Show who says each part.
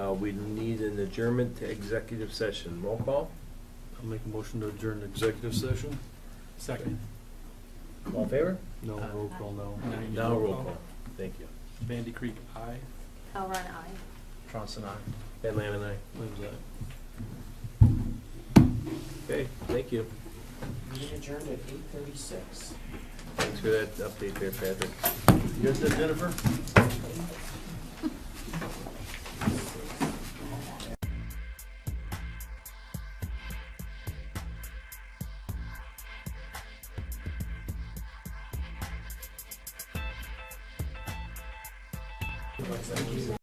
Speaker 1: Uh, we need an adjournment to executive session. Roll call?
Speaker 2: I'll make a motion to adjourn the executive session.
Speaker 3: Second.
Speaker 1: All in favor?
Speaker 2: No, roll call, no.
Speaker 1: Now roll call. Thank you.
Speaker 3: Bandy Creek, aye.
Speaker 4: I'll run aye.
Speaker 1: Johnson, aye. Van Lamb, aye.
Speaker 2: When's that?
Speaker 1: Okay, thank you.
Speaker 5: Meeting adjourned at eight thirty-six.
Speaker 1: Thanks for that update there, Patrick.
Speaker 2: You got that, Jennifer?